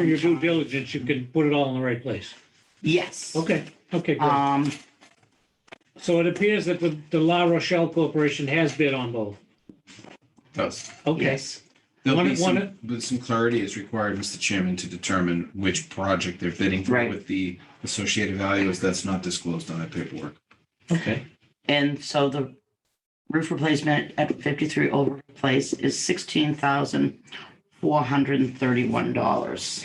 For your due diligence, you can put it all in the right place. Yes. Okay, okay, great. Um, So it appears that the, the La Rochelle Corporation has bid on both. Does. Okay, yes. There'll One- be one- some, but some clarity is required, Mr. Chairman, to determine which project they're bidding for Right. with the associated values. That's not disclosed on that paperwork. okay. And so the roof replacement at fifty-three Old Place is sixteen thousand four hundred and thirty-one dollars.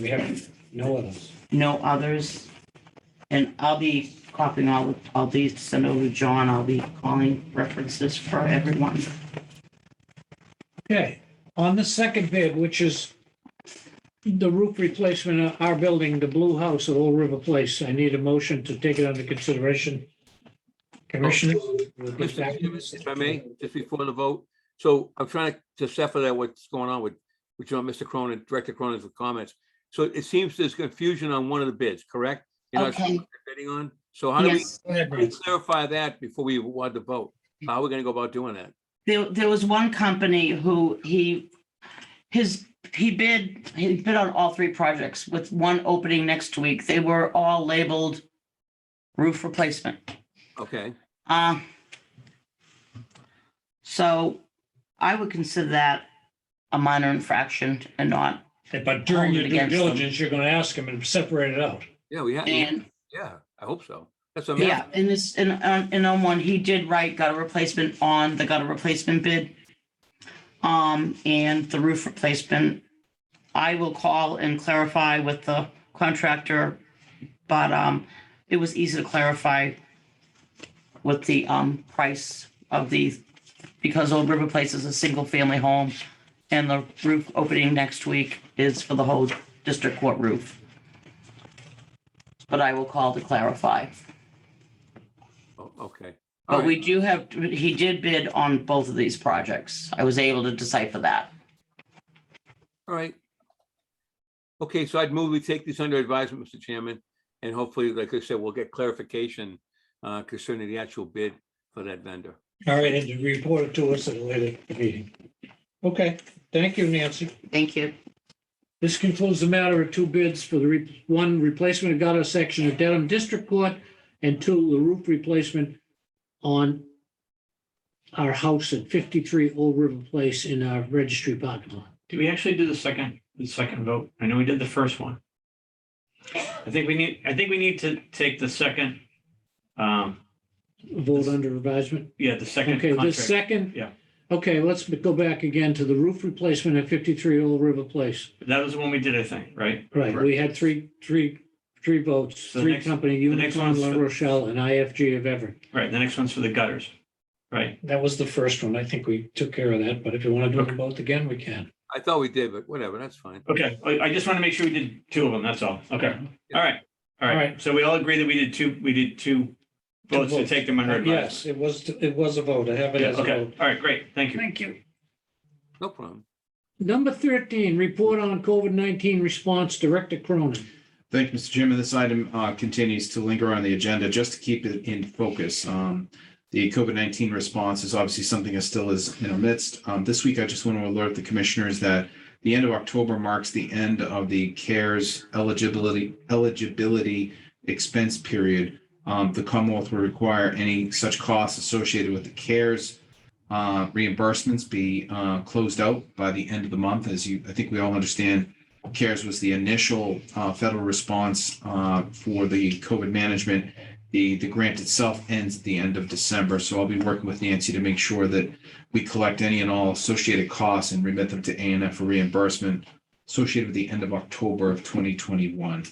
We have no others. No others. And I'll be copying all, of- all these to send over to John. I'll be calling references for everyone. Okay, on the second bid, which is the roof replacement of our building, the blue house at Old River Place, I need a motion to take it under consideration. Commissioner? we'll get back to this. Oh, If I may, just before the vote, so I'm trying to- to decipher that what's going on with, with you know, Mr. Cronin, Director Cronin's comments. So it seems there's confusion on one of the bids, correct? You're not sure Okay. what you're bidding on, so how do we- Yes, Go ahead, how do we Brad. clarify that before we want to vote? How are we gonna go about doing that? there, there was one company who he, his, he bid, he bid on all three projects with one opening next week. They were all labeled roof replacement. Okay, Uh, So I would consider that a minor infraction and not, But during your due Against them. diligence, you're gonna ask them and separate it out. yeah, we have, and, yeah, I hope so. That's what I'm yeah, asking. in this, in, on- in on one, he did write gutter replacement on the gutter replacement bid. Um, and the roof replacement, I will call and clarify with the contractor, but, um, it was easy to clarify with the, um, price of the, because Old River Place is a single-family home, and the roof opening next week is for the whole district court roof. But I will call to clarify. Oh, Okay. But All right. we do have, he did bid on both of these projects. I was able to decipher that. All right. Okay, so I'd move we take this under advisement, Mr. Chairman, and hopefully, like I said, we'll get clarification uh, concerning the actual bid for that vendor. All right, and you report it to us at a later meeting. Okay, thank you, Nancy. Thank you. This concludes the matter of two bids for the, re- one replacement of gutter section of Dedham District Court, and two, the roof replacement on our house at 53 Old River Place in our registry parking lot. Did we actually do the second, the second vote? I know we did the first one. I think we need, I think we need to take the second, um, Vote under advisement. yeah, the second Okay, the contract. second. Yeah. Okay, let's go back again to the roof replacement at 53 Old River Place. That was the one we did, I think, right? Right, we had three, three, three votes, The three next- company, next Unicron, one's La for- Rochelle, and IFG of Everett. Right, the next one's for the gutters, right? That was the first one. I think we took care of that, but if you want to do them both again, we can. I thought we did, but whatever, that's fine. Okay, I, I just want to make sure we did two of them, that's all. Okay, all right, all All right. right. So we all agree that we did two, we did two votes to votes. take them under Yes, advisement. it was, it was a vote. I have it Yeah, as a Okay, vote. all right, great, thank you. Thank you. No problem. Number 13, report on COVID-19 response, Director Cronin. Thank you, Mr. Chairman. This item uh, continues to linger on the agenda just to keep it in focus. Um, The COVID-19 response is obviously something that still is in our midst. Um, This week, I just want to alert the commissioners that the end of October marks the end of the CARES eligibility eligibility expense period. Um, The Commonwealth will require any such costs associated with the CARES uh, reimbursements be uh, closed out by the end of the month. As you, I think we all understand, CARES was the initial uh, federal response uh, for the COVID management. The, the grant itself ends at the end of December, so I'll be working with Nancy to make sure that we collect any and all associated costs and remit them to ANF for reimbursement associated with the end of October of 2021.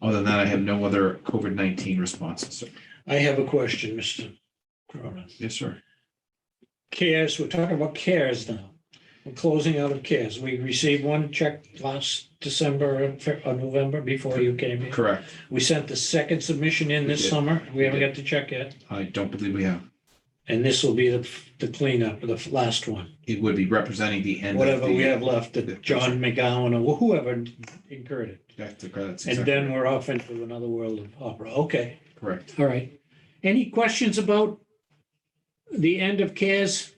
Other than that, I have no other COVID-19 responses. sir. I have a question, Mr. Cronin. Yes, sir. CARES, we're talking about CARES now. We're closing out of CARES. We received one check last December and Fe- or November before you came in. Correct. We sent the second submission in We this did. summer. We We haven't did. got the check yet. I don't believe we have. And this will be the the cleanup, the last one. It would be representing the end. of whatever the- we have left, that John McGowan or whoever incurred it. That's correct. And then we're off into another world of opera. Okay, Correct. all right. Any questions about the end of CARES?